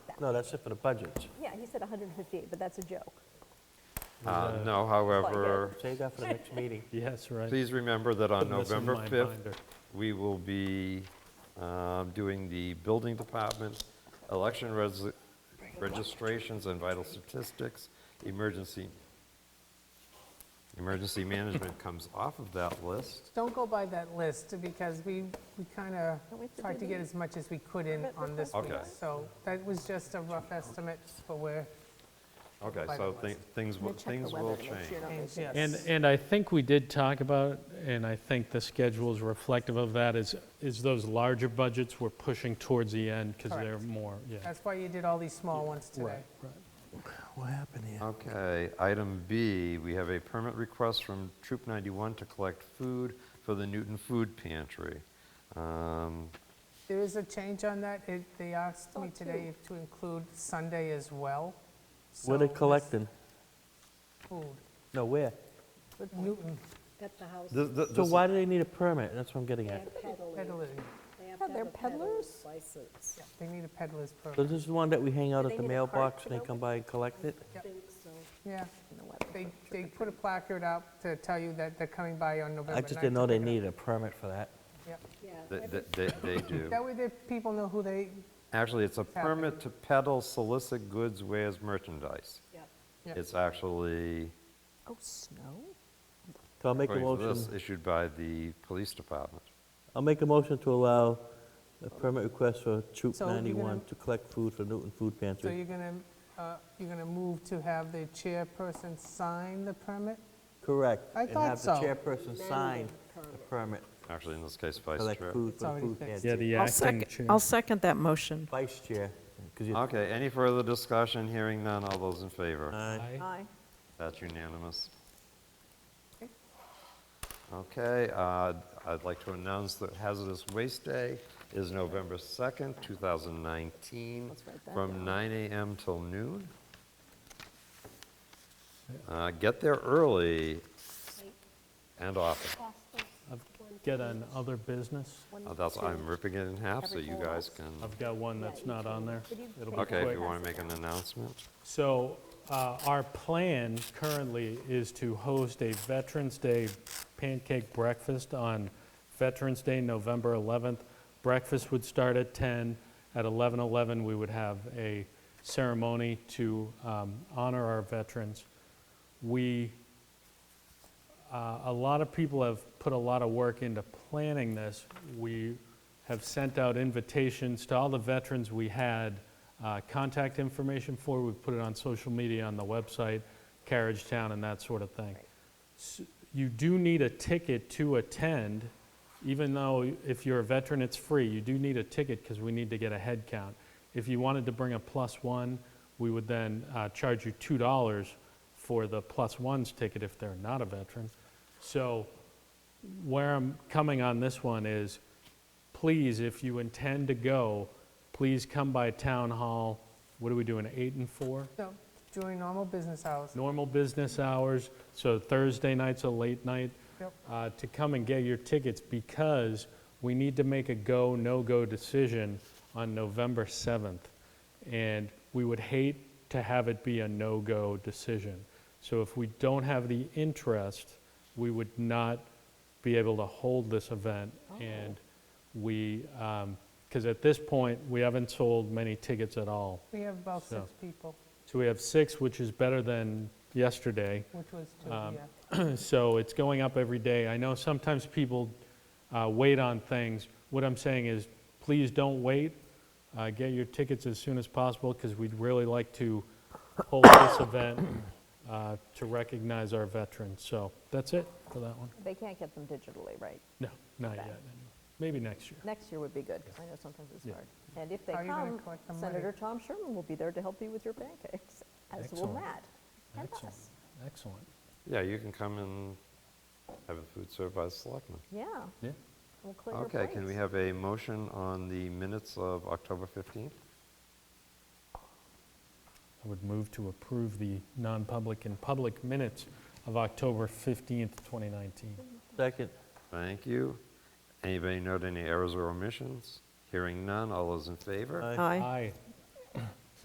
No, that's it for the budget. Yeah, he said 158, but that's a joke. Uh, Yeah. No, however, Save that for the next meeting. Yes, right. please remember that on Putting this in November my 5th, binder. we will be um, doing the building department, election res- registrations and vital statistics, emergency, emergency management comes off of that list. Don't go by that list, because we, we kind of Don't we have to tried do to get the as much as we could in permit on this week. Okay. So that was just a rough estimate for where, Okay, By the so list. thi- things, will- things will change. and And, yes. and I think we did talk about, and I think the schedule is reflective of that, is, is those larger budgets we're pushing towards the end because they're Correct. more, yeah. That's why you did all these small ones today. What happened here? Okay, item B, we have a permit request from Troop 91 to collect food for the Newton Food Pantry. Um, There is a change on that. It- They asked me Thought today if to include Sunday as well. Where they So this collecting? Food, No, where? Newton, At the house, thi- thi- So this- why do they need a permit? That's what I'm getting at. and peddling. peddling. They have Yeah, to have they're a peddler's peddlers. license. They need a peddler's So permit. this is the one that we hang out They at the need a cart mailbox for and they that come by and collect it? I think so. Yeah, No, I don't they, think they put a placard out to tell you that they're coming by on November 9th. I just didn't know to they pick it needed a permit for that. up. Yeah. th- every- th- They they do. Yeah. That way the people know who they, Actually, it's a happening. permit to peddle solicit goods, wares, merchandise. yeah. Yeah. It's actually, Oh, snow? So I'll make a according to this, motion, issued by the police department. I'll make a motion to allow a permit request for Troop So you're gonna- 91 to collect food for Newton Food so Pantry. you're gonna, uh, you're gonna move to have the chairperson sign the permit? Correct. I thought so. And have the chairperson sign the Permit. permit Actually, in this case, to vice collect chair. food for It's the already food fixed. Yeah, pantry. the I'll acting second, chair. I'll second that motion. Vice chair, 'cause you- Okay, any further discussion? Hearing none. All those in favor? Aye. Aye. Aye. That's unanimous. Okay, uh, I'd like to announce that Hazardous Waste Day is November 2nd, 2019, Let's write that from down. 9 a.m. till noon. Uh, Get there early and often. I've got an other business. Uh, That's, I'm ripping it in half so you guys can, I've got one that's not on there. It'll be okay, if quick. you want to make an announcement. So uh, our plan currently is to host a Veterans Day pancake breakfast on Veterans Day, November 11th. Breakfast would start at 10. At 11:11, we would have a ceremony to um, honor our veterans. We uh, a lot of people have put a lot of work into planning this. We have sent out invitations to all the veterans we had uh, contact information for. We've put it on social media, on the website, Carriage Town, and that sort of thing. S- You do need a ticket to attend, even though if you're a veteran, it's free. You do need a ticket because we need to get a head count. If you wanted to bring a plus one, we would then uh, charge you $2 for the plus ones ticket if they're not a veteran. So where I'm coming on this one is, please, if you intend to go, please come by town hall, what are we doing, eight and four? No, during normal business hours. Normal business hours, so Thursday night's a late night, Yep. uh, to come and get your tickets because we need to make a go, no-go decision on November 7th. And we would hate to have it be a no-go decision. So if we don't have the interest, we would not be able to hold this event. And we, because at this point, we haven't sold many tickets at all. We have about So- six people, So we have six, which is better than yesterday. which was two, yeah. So it's going up every day. I know sometimes people uh, wait on things. What I'm saying is, please don't wait. Uh, Get your tickets as soon as possible, because we'd really like to hold this event uh, to recognize our veterans. So that's it for that one. They can't get them digitally, right? No, not yet. Maybe next year. Next year would be good, 'cause I know sometimes it's Yeah. hard. And if they How are you gonna come, collect the money? Senator Tom Sherman will be there to help you with your pancakes, as will Excellent. Matt and Excellent. us. Excellent. Yeah, you can come and have a food served by the selectmen. Yeah, Yeah. we'll clear your Okay, can we plates. have a motion on the minutes of October 15th? I would move to approve the non-public and public minutes of October 15th, 2019. Second. Thank you. Anybody note any errors or omissions? Hearing none, all those in favor? Aye. Aye. Aye.